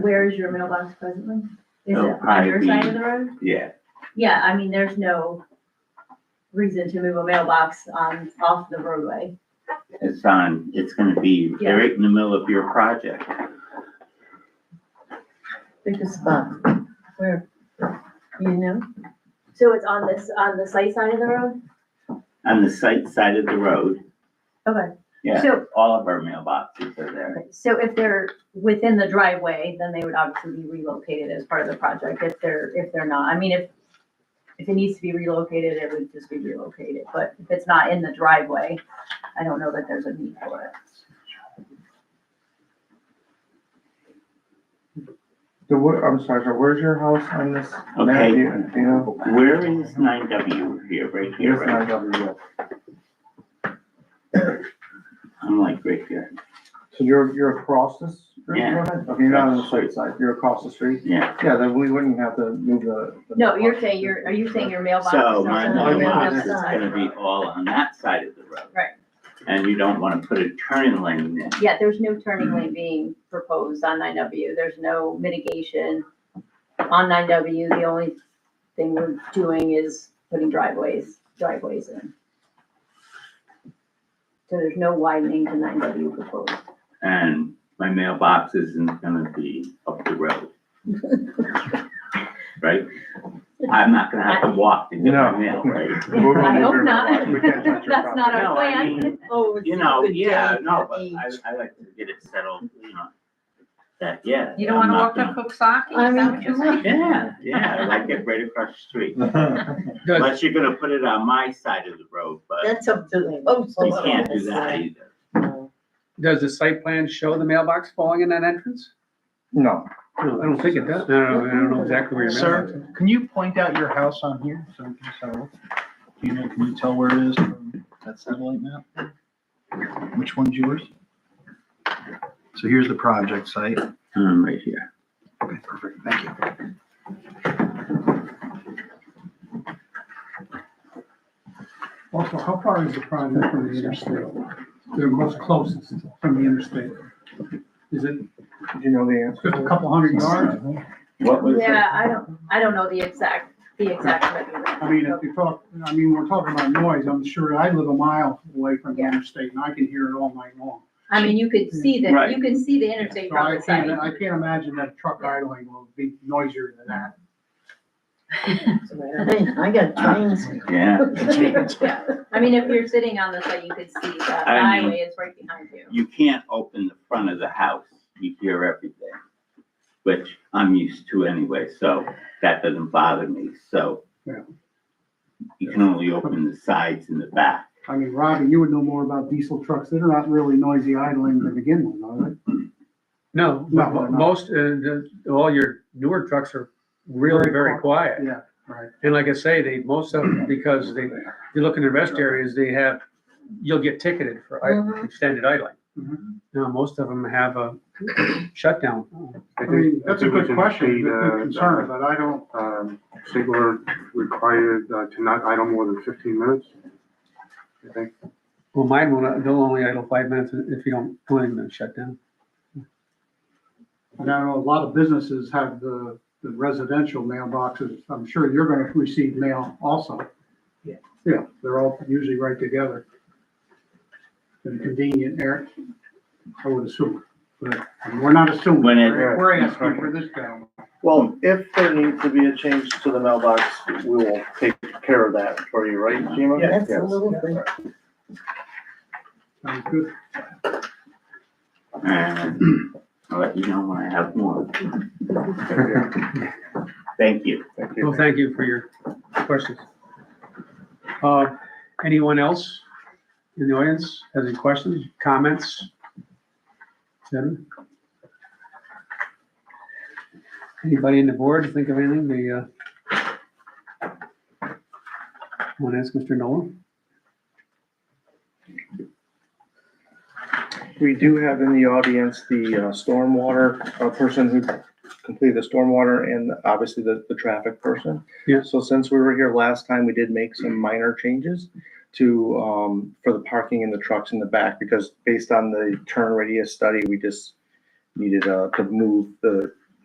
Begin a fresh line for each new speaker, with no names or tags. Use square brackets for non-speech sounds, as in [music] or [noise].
Where is your mailbox presently? Is it
Oh,
on your
probably-
side of the road?
Yeah,
Yeah, I mean, there's no reason to move a mailbox on, off the roadway.
it's on, it's gonna be
Yeah.
right in the middle of your project.
Pick a spot where, you know,
So it's on this, on the site side of the road?
On the site side of the road,
Okay.
yeah,
So,
all of our mailboxes are there.
so if they're within the driveway, then they would obviously be relocated as part of the project if they're, if they're not. I mean, if, if it needs to be relocated, it would just be relocated, but if it's not in the driveway, I don't know that there's a need for it.
So where, I'm sorry, so where's your house on this? map?
Okay.
Do you- do you know?
Where is nine W here, right here,
Here's
right?
nine W.
I'm like right here,
So you're, you're across the street
Yeah.
from it? Okay, you're not on the straight side, you're across the street?
yeah.
Yeah, then we wouldn't have to move the. the
No, you're
mailbox.
saying, you're, are you saying your mailbox? is
So
on
my
the
no, no,
mailbox
other
is
no,
side?
gonna be all on that side of the road.
Right.
And you don't wanna put a turn lane in.
Yeah, there's no turning lane being proposed on nine W, there's no mitigation on nine W, the only thing we're doing is putting driveways, driveways in. So there's no widening to nine W proposed.
and my mailbox isn't gonna be up the road.
[laughs]
Right? I'm not gonna have to walk to get my
No.
mail, right?
[laughs]
We're gonna
I
move
hope
your
not.
mailbox. We can't
[laughs]
touch your
That's not
property.
No,
our
I
plan. [laughs]
mean,
oh,
you know,
Good
yeah,
day
no,
for
but I,
each.
I like to get it settled, you know, that, yeah.
You don't
I'm
wanna
not
walk up Coxsackie?
I
Is that what
mean,
you're saying?
Yeah, yeah, I like it right across the [laughs] street, unless you're gonna put it on my side of the road, but
that's up to the postal.
you can't do that
office.
either.
Does the site plan show the mailbox falling in that entrance?
[laughs] No,
I don't think it does. No, no, I don't know exactly where your mailbox
Sir, can you point out your house on here so we can tell? Do you know, can you tell where it is from that satellite map? Which one's yours? So here's the project site.
Um, right here.
Okay, perfect, thank you.
Also, how far is the project from the interstate? The most closest from the interstate? Is it
do you know the answer?
just a couple hundred yards?
What was it?
Yeah, I don't, I don't know the exact, the exact measurement.
I mean, if you talk, I mean, we're talking about noise, I'm sure, I live a mile away from the interstate and I can hear it all night long.
I mean, you could see that,
Right.
you can see the interstate
So I
from the side.
can't, I can't imagine that a truck idling will be noisier than that.
Hey, I got trains.
Uh,
[laughs]
Yeah.
Yeah, I mean, if you're sitting on the side, you could see the
I mean-
highway is right behind you.
you can't open the front of the house. You hear everything, which I'm used to anyway, so that doesn't bother me, so.
Yeah.
You can only open the sides and the back.
I mean, Robin, you would know more about diesel trucks, they're not really noisy idling to begin with, are they?
No,
No,
mo-
no.
most, uh, the- all your newer trucks are really
Very
very quiet.
Yeah, right.
And like I say, they, most of them, because they, you look in the rest areas, they have, you'll get ticketed for i-
Mm-hmm.
Mhm.
extended idling.
Mhm.
Now, most of them have a shutdown.
I mean, that's a good question, good good concern,
uh,
but I don't,
um, Sigler required uh, to not idle more than fifteen minutes. I think,
Well, mine will, not- they'll only idle five minutes if you don't, plan to shut down.
And I know a lot of businesses have the, the residential mailboxes. I'm sure you're gonna receive mail also.
Yeah.
Yeah, they're all usually right together. And convenient, Eric, I would assume, but we're not assuming.
When it-
uh,
We're asking for this guy.
Well, if there needs to be a change to the mailbox, we will take care of that for you, right, Jima?
That's a little bit.
Sounds good.
And Um, I'll let you know when I have more. Thank you.
Thank you.
Well, thank you for your questions. Uh, Anyone else in the audience has any questions, comments? Jen? Anybody in the board think of anything they uh, want to ask Mr. Nolan?
We do have in the audience the uh, stormwater, uh person who completed the stormwater and obviously the, the traffic person.
Yeah.
So since we were here last time, we did make some minor changes to, um, for the parking and the trucks in the back because based on the turn radius study, we just needed, uh, to move the